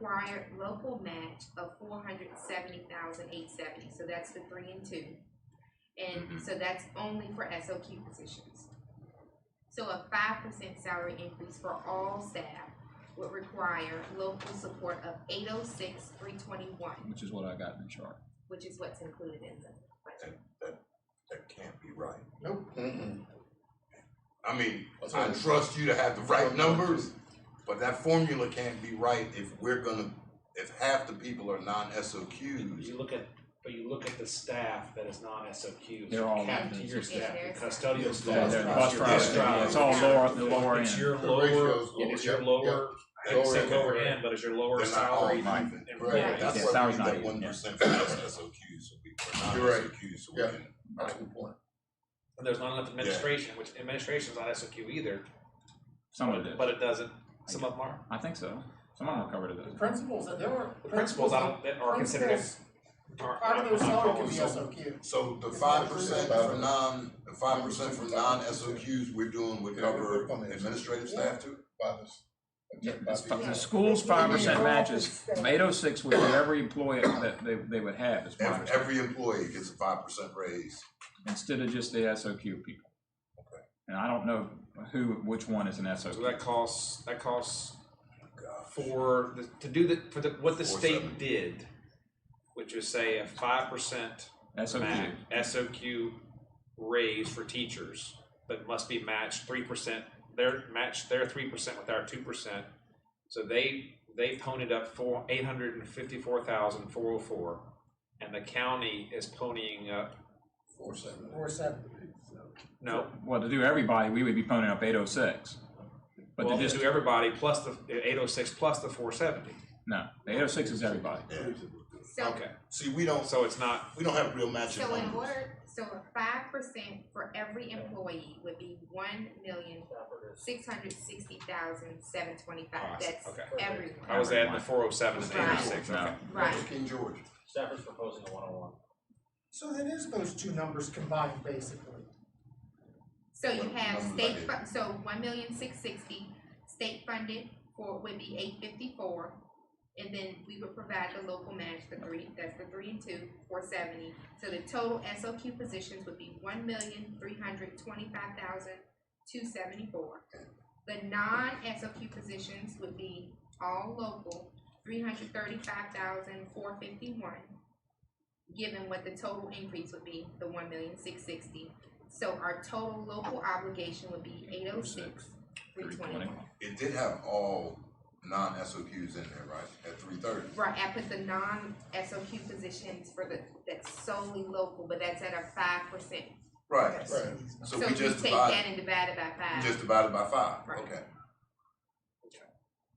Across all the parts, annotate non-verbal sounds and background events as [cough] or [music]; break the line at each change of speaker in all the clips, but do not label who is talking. required local match of four hundred seventy thousand eight seventy, so that's the three and two. And
Mm-hmm.
Mhm.
so that's only for SOQ positions. So a five percent salary increase for all staff would require local support of eight oh six, three twenty-one,
which is what I got in the chart.
which is what's included in the budget.
That can't be right.
Mm-mm.
I mean,
That's
I
right.
trust you to have the right numbers, but that formula can't be right if we're gonna, if half the people are non-SOQs.
You look at, but you look at the staff that is non-SOQs.
They're all
Cap to
non-SOQs.
your staff,
Yeah,
your
they're-
custodial
Yes,
staff.
they're-
your
bus
bus
drivers,
drivers,
yeah, it's
all lower- the lower
It's
end.
your
The
lower,
ratio's lower,
it is your
yep,
lower, I hate to say
Lower end.
lower end, but it's your lower
They're not all
salary.
even.
employees.
Right,
Yeah,
that's why we
salary's
need
not
that
even,
one
yeah.
percent for SOQs, so we, are
You're right.
non-SOQs, so we
Yeah.
can.
That's a good point.
And there's not enough administration, which administration's not SOQ either,
Some of it,
but it doesn't, some of them are.
I think so. Some of them are covered at
The
those.
principals, there were.
The principals, I don't, that are considered.
principals,
are-
Part of their
are-
salary could be
are-
SOQ.
So the
It's
five
not
percent
true.
for non, the five percent for non-SOQs we're doing would
Yeah, we're
cover
coming.
administrative staff too?
By this. uh,
Yeah, it's fi-
By
The
the-
school's five percent matches,
State.
from eight oh six would be every employee that they, they would have as five
Every,
percent,
every employee gets a five percent raise.
instead of just the SOQ people. And I don't know who, which one is an
So
SOQ.
that costs, that costs
God.
for the, to do the, for the, what the
Four
state
seven.
did, which is say a five percent
SOQ,
MAC, SOQ raise for teachers, but must be matched three percent, their, match their three percent with our two percent. So they, they ponied up four, eight hundred and fifty-four thousand, four oh four, and the county is ponying up,
Four seven.
Or something.
no,
well, to do everybody, we would be ponying up eight oh six. But
well,
to
to
just,
do everybody plus the eight oh six plus the four seventy,
no, eight oh six is everybody.
Yeah.
So,
okay,
See, we don't,
so it's not,
we don't have real matching
so in
numbers.
order, so a five percent for every employee would be one million, six hundred sixty thousand, seven
Oh, I
twenty-five,
see.
that's
Okay.
everyone,
I was adding the four oh seven and eight
Right.
oh six,
No.
okay.
right?
King George.
Stafford's proposing a one-on-one.
So then is those two numbers combined basically?
So you
What
have
numbers I
state,
did.
fu- so one million six sixty, state funded for would be eight fifty-four. And then we would provide the local match, the three, that's the three and two, four seventy. So the total SOQ positions would be one million three hundred twenty-five thousand two seventy-four. The non-SOQ positions would be all local, three hundred thirty-five thousand four fifty-one. Given what the total increase would be, the one million six sixty. So our total local obligation would be eight oh six, three twenty.
It did have all non-SOQs in there, right, at three thirty?
Right, I put the non-SOQ positions for the, that's solely local, but that's at a five percent.
Right,
Right.
so
So
we
if you
just
take that
divide,
and divide it by
we
five.
just divided by five,
Right.
okay.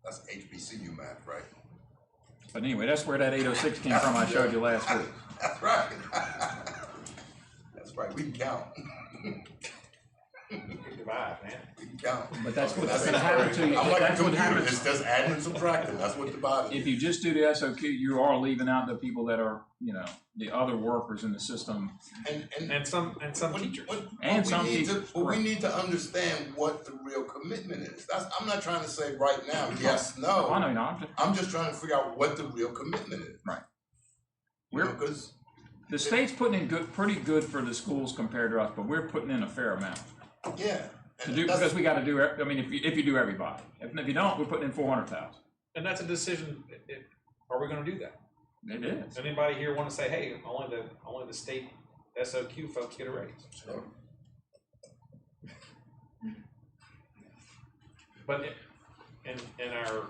That's HBCU math, right? [laughs]
But anyway, that's where that eight oh six came from I showed you last week.
That's right. That's right, we can count,
Divide, man.
we can count.
But that's
Okay,
what- that's what happened to you.
I'm like a
That's what
computer,
happens.
it's just adding and subtracting, that's what dividing
If
is.
you just do the SOQ, you are leaving out the people that are, you know, the other workers in the system
And, and
And some, and some
What-
teachers.
what- what
And
we
some
need to-
teachers,
But we
correct.
need to understand what the real commitment is. That's, I'm not trying to say right now, yes,
I
no.
know, no, I'm just,
I'm just trying to figure out what the real commitment is.
Right.
You know,
We're-
cause
the state's putting in good, pretty good for the schools compared to us, but we're putting in a fair amount.
yeah.
To
and
do,
that's-
because we gotta do, ev- I mean, if you, if you do everybody, if, if you don't, we're putting in four hundred thousand.
And that's a decision, it- it- are we gonna do that?
It is.
Does anybody here wanna say, hey, only the, only the state SOQ folks get a raise? But it- and, and our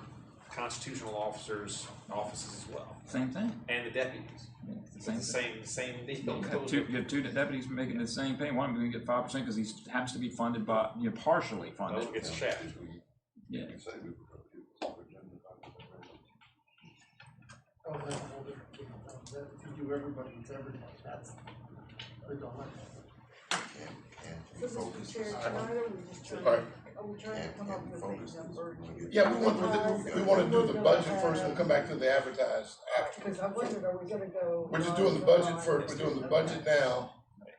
constitutional officers, offices as well,
Same thing.
and the deputies,
Yeah, it's the
it's
same
the
thing.
same, same
You have two,
deal.
you have two deputies making the same pay, one of them gonna get five percent, cause he happens to be funded by, you know, partially funded.
Those gets checked.
Yeah.
Oh, that's a whole different thing. That- You do everybody, it's everybody, that's the dilemma.
Can't-
This
can't
is
we focus?
for Chair Charter, we're just trying,
Right.
are we trying to
Can't-
come
can't
up
we
with
focus
a
this?
number?
We're gonna get-
Yeah, we want, to do- we want to do the budget first, we'll come back to the advertise after.
Because I wondered, are we gonna go?
We're just doing the budget first, we're doing the budget now.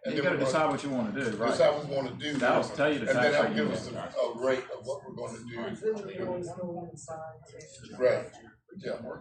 and
You
then
gotta
we're gonna
decide what you wanna do, right?
Decide what we want to do.
That'll tell you the
And then
tax
that'll
rate you
give us
want.
a, a rate of what we're going to do.
Because then we always go on the side.
Right. Yeah.